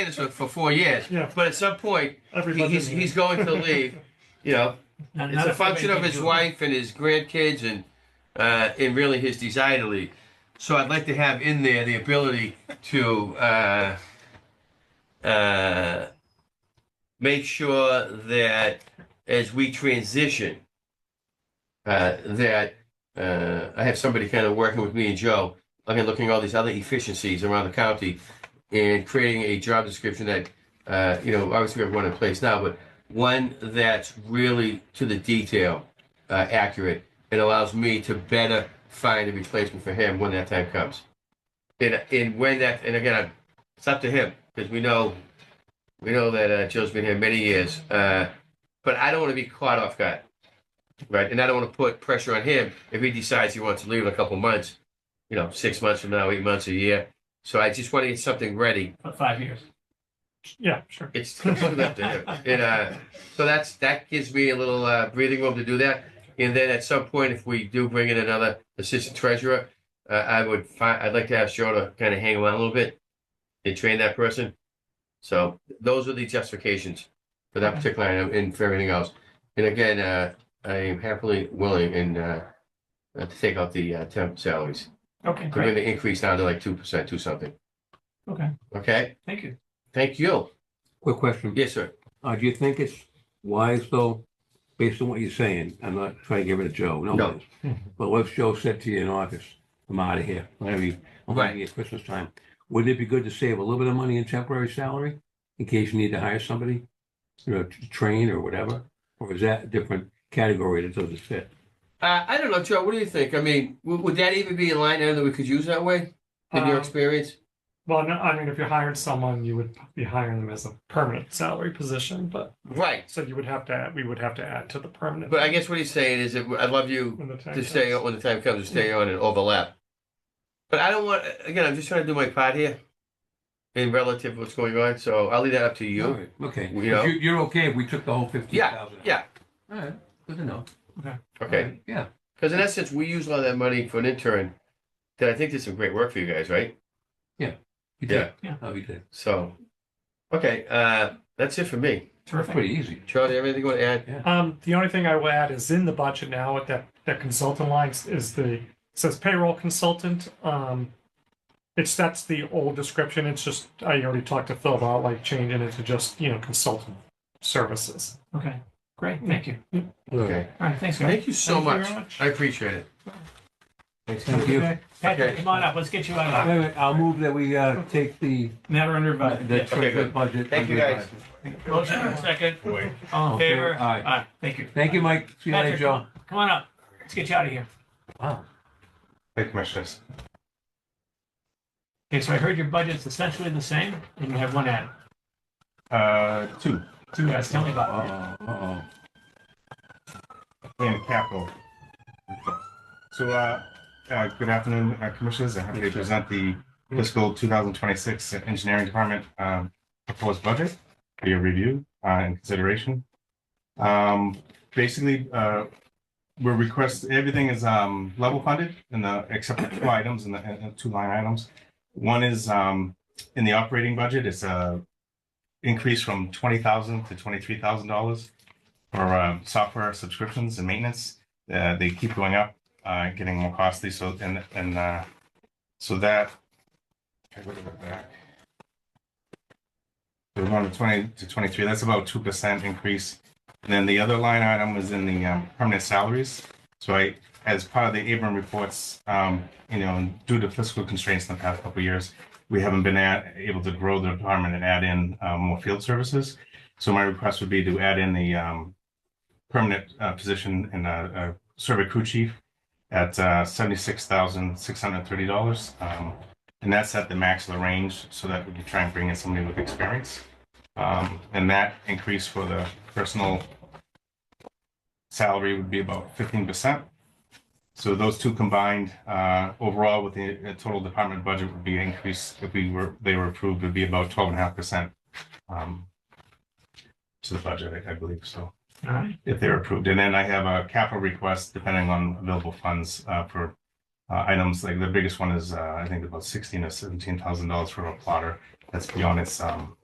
this for, for four years. Yeah. But at some point, he- Everybody. he's, he's going to leave. You know, Not- it's not a if we function make of it his do it. wife and his grandkids and uh, and really his desire to leave. So I'd like to have in there the ability to uh, uh, make sure that as we transition, uh, that uh, I have somebody kind of working with me and Joe, looking looking at all these other efficiencies around the county, and creating a job description that uh, you know obviously we have one in place now, but one that's really to the detail uh, accurate and allows me to better find a replacement for him when that time comes. And, and when that, and again, I- it's up to him because we know, we know that uh, Joe's been here many years, uh, but I don't want to be caught off guard, right? And I don't want to put pressure on him if he decides he wants to leave in a couple months, you know, six months from now, eight months, a year. So I just want to get something ready. For five years. Yeah, sure. It's completely up to him. And uh, so that's that gives me a little uh, breathing room to do that. And then at some point, if we do bring in another assistant treasurer, uh, I would find I'd like to ask Joe to kind of hang around a little bit and train that person. So those are the justifications for that particular item and for everything else. And again, uh, I am happily willing and uh, uh, to take out the uh, temp salaries. Okay, We're going great. to increase down to like two percent, two something. Okay, Okay. thank you. Thank you. Quick question. Yes, sir. Uh, do you think it's wise though, based on what you're saying, I'm not trying to give it to Joe, no. No. offense, But what if Joe said to you in August, I'm out of here, whatever you, I'm Right. out here at Christmas time. Wouldn't it be good to save a little bit of money in temporary salary in case you need to hire somebody? You know, to train or whatever, or is that a different category that doesn't fit? Uh, I don't know, Joe. What do you think? I mean, w- would that even be a line item that we could use that way in your Um, experience? Well, no, I mean, if you hired someone, you would be hiring them as a permanent salary position, but Right. so you would have to, add- we would have to add to the permanent. But I guess what he's saying is that I'd love you when the time to stay comes. on when the time comes to stay on and overlap. But I don't want, again, I'm just trying to do my part here in relative to what's going on. So I'll leave that up to All you. right, Okay, You know? But you, you're okay if we took the whole fifteen Yeah, thousand? yeah. All right, good to know. Okay. Yeah, Because in essence, we use a lot of that money for an intern that I think did some great work for you guys, right? you did. Yeah. Yeah. Oh, you did. So, okay. Uh, that's it for me. That's Terrific. pretty easy. Charlie, everything you want to add? Um, the only thing I will add is in the budget now at that, that consultant line s- is the, it says payroll consultant. Um, it's, that's the old description. It's just, I already talked to Phil about like changing it to just, you know, consultant services. Okay, great, Hmm. thank you. Okay. All right, thanks, guys. Thank you so Thank you much. very I appreciate it. Thanks. Thank you. Patrick, Okay. come on up, let's get you Wait, out of a minute, I'll move that we, uh, take the uh, Matter under The advisement. treasurer good. budget. Thank you, under guys. advisement. Motion and second, all All in in favor? favor? Aye. Thank you. Thank you, Mike. See you later, Patrick, Joe. Come on up, let's get you out of here. Wow. Thank you, Commissioners. Okay, so I heard your budget's essentially the same, and you have one add. Uh, two, Two guys, tell me about it. Uh-oh, uh-oh. and capital. So, uh, uh, good afternoon, uh, Commissioners. I'm happy to present the fiscal 2026 Engineering Department um, proposed budget for your review uh, and consideration. Um, Basically, uh, we're request, everything is um, level funded in the, except for two items, in the, in the two line items. One is um, in the operating budget, it's a increase from 20000 to $23,000. for um, software subscriptions and maintenance. Uh, they keep going up, uh, getting more costly. So and and uh, so that. if I go to the back. So we're going to twenty to twenty-three. That's about two percent increase. And then the other line item was in the um, permanent salaries. So I, as part of the Abram reports, um, you know, due to fiscal constraints in the past couple of years, we haven't been at, able to grow the department and add in uh, more field services. So my request would be to add in the um, permanent uh, position in a survey crew chief at uh, $76,630. Um, And that's at the max of the range, so that we can try and bring in somebody with experience. Um, And that increase for the personal salary would be about 15%. So those two combined, uh, overall with the uh, total department budget would be increased, if we were, they were approved, would be about 12.5% um, to the budget, I- I believe, so All right, if they're approved. And then I have a capital request depending on available funds uh, for uh, items like the biggest one is, uh, I think about sixteen or seventeen thousand dollars for a plotter. That's beyond its um,